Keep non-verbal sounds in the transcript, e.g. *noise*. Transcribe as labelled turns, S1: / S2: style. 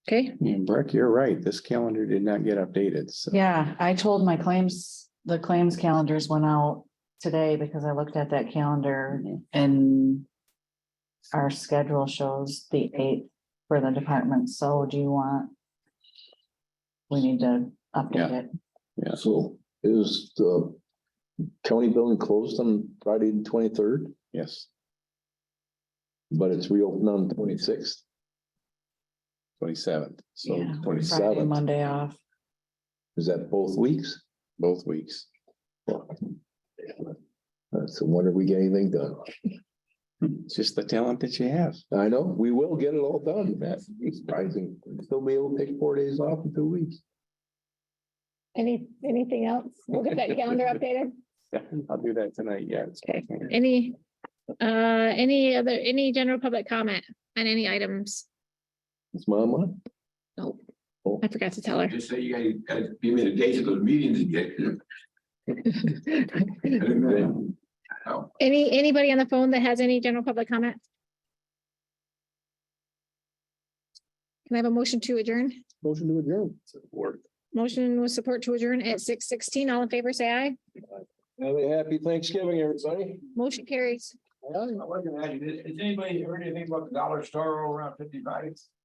S1: Okay,
S2: And Brooke, Mm, you're right. This calendar did not get updated, so.
S3: Yeah, I told my claims, the claims calendars went out today because I looked at that calendar and our schedule shows the eighth for the department, so do you want? We need to update
S2: Yeah.
S3: it.
S2: Yeah.
S4: So is the county building closed on Friday the twenty-third,
S2: Yes,
S4: but it's reopened on the twenty-sixth?
S2: twenty-seventh, so
S3: Yeah, Friday,
S4: 27th.
S3: Monday off.
S4: Is that both weeks?
S2: both weeks.
S4: That's a wonder we get anything done.
S2: It's just the talent that you have. *laughs*
S4: I know, we will get it all done. That's surprising. Still be able to take four days off in two weeks.
S5: Any, anything else? We'll get that calendar updated.
S2: I'll do that tonight, yeah. it's-
S5: Okay, any, uh, any other, any general public comment on any items?
S4: It's my month.
S5: I forgot to tell her.
S6: Just say you guys, guys, give me the dates of those meetings and get.
S5: Any, anybody on the phone that has any general public comment? Can I have a motion to adjourn?
S4: Motion to adjourn.
S5: Motion with support to adjourn at six sixteen. All in favor, say aye.
S4: Have a happy Thanksgiving, everybody.
S5: Motion carries.
S6: Has anybody heard anything about the dollar store over around fifty-five?